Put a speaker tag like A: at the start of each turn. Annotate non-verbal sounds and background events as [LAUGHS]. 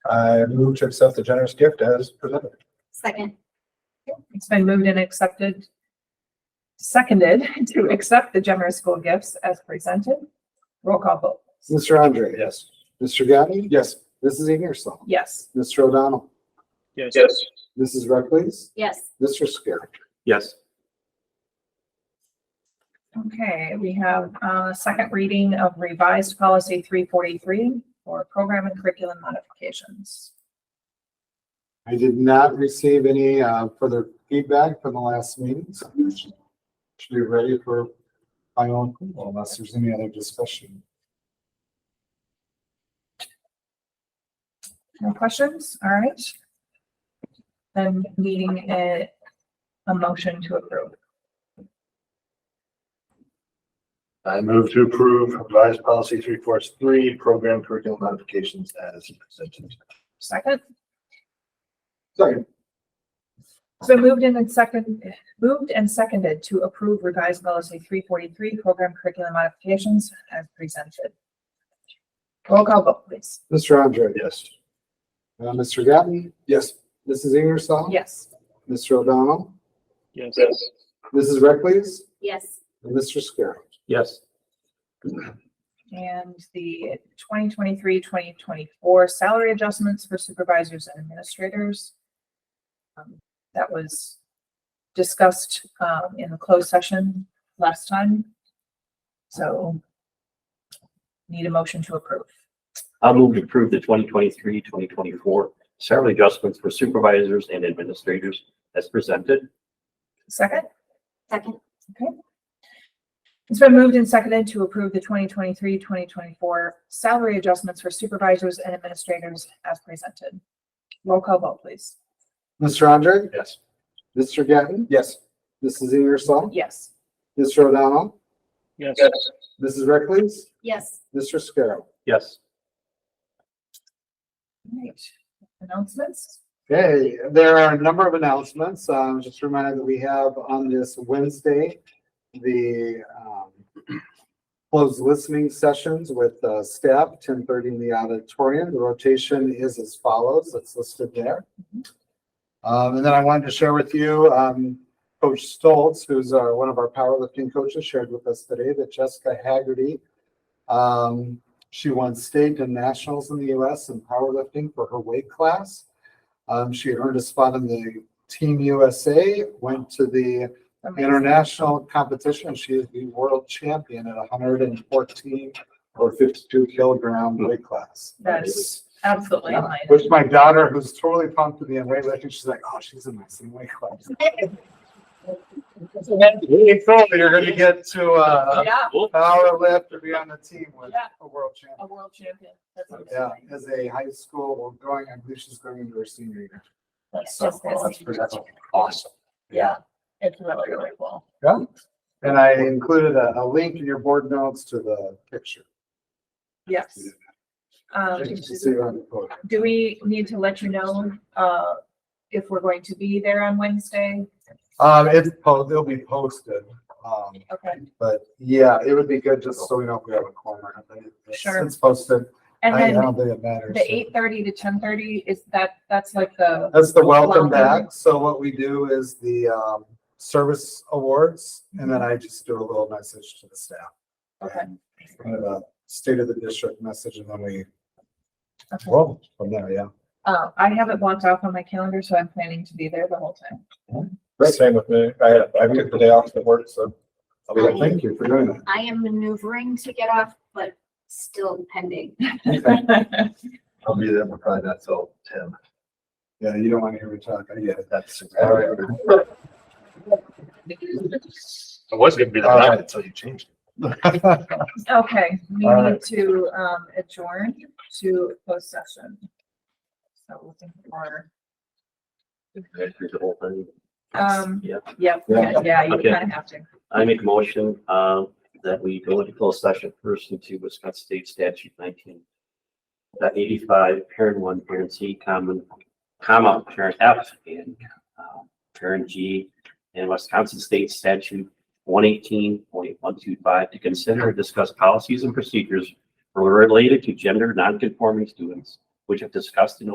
A: I move to accept the generous gift as presented.
B: Second.
C: It's been moved and accepted, seconded [LAUGHS] to accept the generous school gifts as presented. Roll call vote.
D: Mr. Andre?
A: Yes.
D: Mr. Gattni?
A: Yes.
D: Mrs. Ingersoll?
C: Yes.
D: Mr. O'Donnell?
E: Yes.
D: Mrs. Reckles?
B: Yes.
D: Mr. Scarrick?
E: Yes.
C: Okay, we have a second reading of revised policy three forty-three for program and curriculum modifications.
D: I did not receive any uh, further feedback from the last meeting, so I should should be ready for my own approval unless there's any other discussion.
C: No questions? All right. Then needing a, a motion to approve.
A: I move to approve revised policy three four three, program curriculum modifications as presented.
C: Second,
D: Second.
C: it's been moved and second, moved and seconded to approve revised policy three forty-three program curriculum modifications as presented. Roll call vote, please.
D: Mr. Andre?
A: Yes.
D: Uh, Mr. Gattni?
A: Yes.
D: Mrs. Ingersoll?
C: Yes.
D: Mr. O'Donnell?
E: Yes.
D: Mrs. Reckles?
B: Yes.
D: And Mr. Scarrick?
E: Yes.
C: And the 2023-2024 salary adjustments for supervisors and administrators. Um, That was discussed, um, in the closed session last time. So need a motion to approve.
E: I'll move to approve the 2023-2024 salary adjustments for supervisors and administrators as presented.
C: Second,
B: Second.
C: it's been moved and seconded to approve the 2023-2024 salary adjustments for supervisors and administrators as presented. Roll call vote, please.
D: Mr. Andre?
A: Yes.
D: Mr. Gattni?
A: Yes.
D: Mrs. Ingersoll?
C: Yes.
D: Mr. O'Donnell?
E: Yes.
D: Mrs. Reckles?
B: Yes.
D: Mr. Scarrow.
E: Yes.
C: Right, announcements?
D: Okay, there are a number of announcements. Um, just a reminder that we have on this Wednesday, the, um, closed listening sessions with, uh, staff, ten thirty in the auditorium. The rotation is as follows. It's listed there. Um, and then I wanted to share with you, um, Coach Stoltz, who's, uh, one of our powerlifting coaches, shared with us today that Jessica Haggerty, um, she won state and nationals in the U.S. in powerlifting for her weight class. Um, she had earned a spot in the Team USA, went to the
C: Amazing.
D: international competition. and She is the world champion at 114 or 52 kilogram weight class.
C: That is absolutely
D: Yeah.
C: amazing.
D: Which my daughter, who's totally pumped to be in weightlifting, she's like, oh, she's in my same weight class. Really cool. You're going to get to uh,
C: Yeah,
D: power lift or be on the team with
C: Yeah.
D: a world champion.
C: a world champion. That's amazing.
D: Yeah, as a high school, well, going, I believe she's going into her senior year.
C: That's
D: So,
C: just
D: that's
C: amazing.
D: pretty- that's awesome.
C: Yeah, it's really, really cool.
D: Yeah. And I included a, a link in your board notes to the picture.
C: Yes. Um,
D: Just to see on the photo.
C: do we need to let you know, uh, if we're going to be there on Wednesday?
D: Um, it's, po- it'll be posted, um,
C: Okay,
D: but yeah, it would be good just so we know if we have a quorum or not. It's-
C: Sure.
D: It's posted.
C: and
D: I I
C: then
D: don't think it matters.
C: the eight thirty to ten thirty, is that, that's like the,
D: That's the welcome
C: Welcome.
D: back. So what we do is the, um, service awards and then I just do a little message to the staff.
C: okay,
D: kind of a state of the district message and then we
C: Okay.
D: roll from there, yeah.
C: uh, I have it blocked off on my calendar, so I'm planning to be there the whole time.
A: Same with me. I, I took the day off to work, so. I'll be
D: Well,
A: like,
D: thank you for doing that.
B: I am maneuvering to get off, but still pending.
D: [LAUGHS]
C: [LAUGHS]
A: I'll be there, but probably not till ten.
D: Yeah, you don't want to hear me talk. I get it.
A: That's.
D: All right.
E: I was gonna be
A: All right, until you change.
D: [LAUGHS]
C: Okay, we
A: All
C: need
A: right.
C: to um adjourn to closed session. So looking for, um,
E: Yeah,
C: yeah, yeah, yeah, you
E: Okay.
C: kind of have to.
E: I make a motion, um, that we go into closed session pursuant to Wisconsin State Statute nineteen. That eighty-five, parent one, parent C, common, comma, parent F, and, um, parent G, and Wisconsin State Statute one eighteen point one two five to consider and discuss policies and procedures related to gender nonconforming students, which have discussed in